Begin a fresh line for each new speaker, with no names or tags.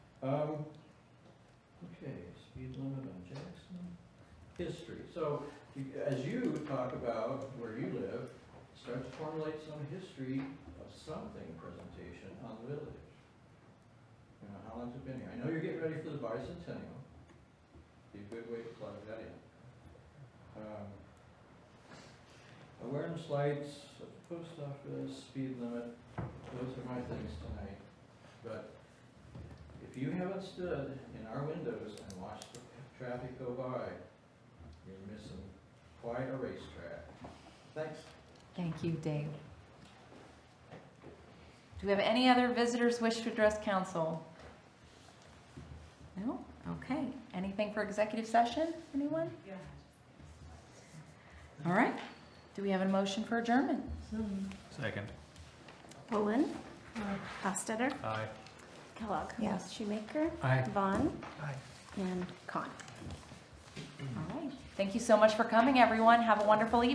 Um, Okay, speed limit on Jackson, history. So you- as you talk about where you live, start to formulate some history of something presentation on the village. You know, how long's it been here? I know you're getting ready for the bicentennial. Be a good way to plug that in. Um, Awareness lights, at the post office, speed limit, those are my things tonight. But if you haven't stood in our windows and watched the traffic go by, you're missing quite a racetrack. Thanks.
Thank you, Dave. Do we have any other visitors wish to address council? No? Okay. Anything for executive session? Anyone?
Yeah.
All right. Do we have a motion for adjournment?
Second.
Bullen. Hostetter.
Aye.
Kellogg.
Yes.
Shoemaker.
Aye.
Vaughn.
Aye.
And Con.
All right. Thank you so much for coming, everyone. Have a wonderful evening.